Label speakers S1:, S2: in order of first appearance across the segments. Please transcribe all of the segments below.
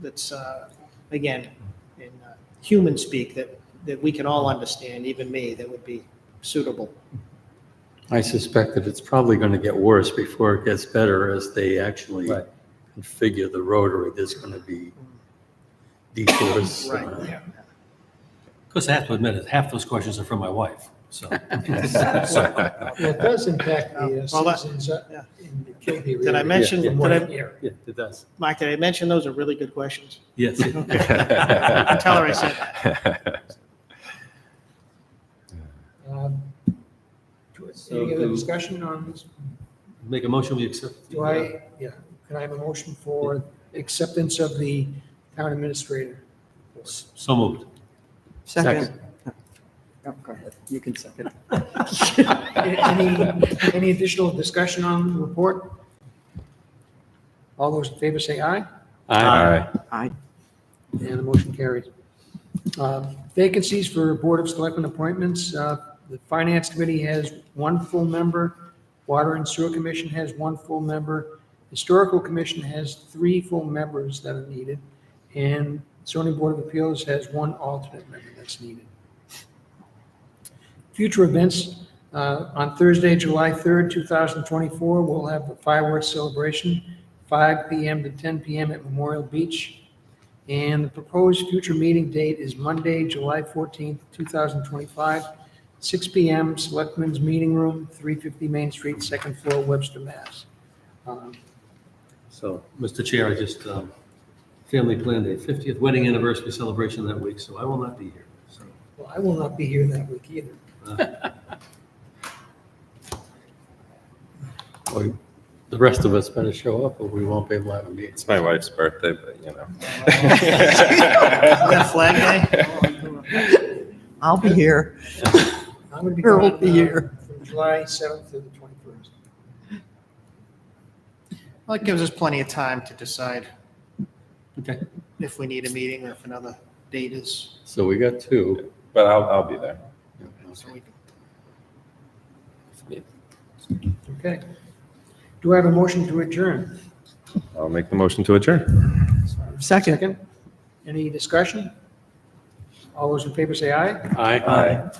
S1: that's, uh, again, in uh, human speak that, that we can all understand, even me, that would be suitable.
S2: I suspect that it's probably going to get worse before it gets better as they actually
S3: Right.
S2: configure the rotary. There's going to be detours.
S1: Right,
S2: uh,
S1: yeah.
S4: Of course, I have to admit it, half those questions are from my wife, so.
S5: Well, It does impact the
S1: Well,
S5: uh,
S1: that-
S5: citizens uh,
S1: yeah.
S5: in the KP region.
S1: Did I mention,
S5: in
S1: did
S5: one
S1: I,
S5: year.
S3: Yeah, it does.
S1: Mike, did I mention those are really good questions?
S4: Yes.
S1: Tell her I said that.
S5: Um, Any other discussion on this?
S4: Make a motion, we accept. the,
S5: Do
S4: uh,
S5: I, yeah, can I have a motion for acceptance of the town administrator?
S4: s- So moved.
S6: Second. Oh, Go ahead, you can second.
S5: Any, any additional discussion on the report? All those in favor say aye,
S2: I-
S6: Aye.
S5: and the motion carries. Uh, Vacancies for Board of Selectmen appointments, uh, the Finance Committee has one full member, Water and Sewer Commission has one full member, Historical Commission has three full members that are needed, and zoning board of appeals has one alternate member that's needed. Future events, uh, on Thursday, July 3rd, 2024, we'll have a fireworks celebration, 5 PM to 10 PM at Memorial Beach. And the proposed future meeting date is Monday, July 14th, 2025, 6 PM, Selectmen's Meeting Room, 350 Main Street, second floor, Webster, Mass. Um,
S4: So, Mr. Chair, I just, um, family planned a 50th wedding anniversary celebration that week, so I will not be here. So,
S5: Well, I will not be here that week either.
S2: Well, The rest of us better show up or we won't be able to have a meeting.
S3: It's my wife's birthday, but you know.
S1: that Flag Day?
S6: I'll be here.
S5: I'm going to be
S6: Or
S5: gone
S6: will be
S5: uh,
S6: here.
S5: from July 7th to the 21st.
S1: Well, it gives us plenty of time to decide
S4: Okay.
S1: if we need a meeting or if another date is,
S2: So we got two.
S3: But I'll, I'll be there.
S1: so we can-
S5: Okay. Do I have a motion to adjourn?
S3: I'll make the motion to adjourn.
S6: Second.
S5: Any discussion? All those in favor say aye.
S2: Aye.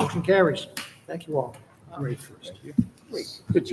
S5: Motion carries. Thank you all.
S2: Good job.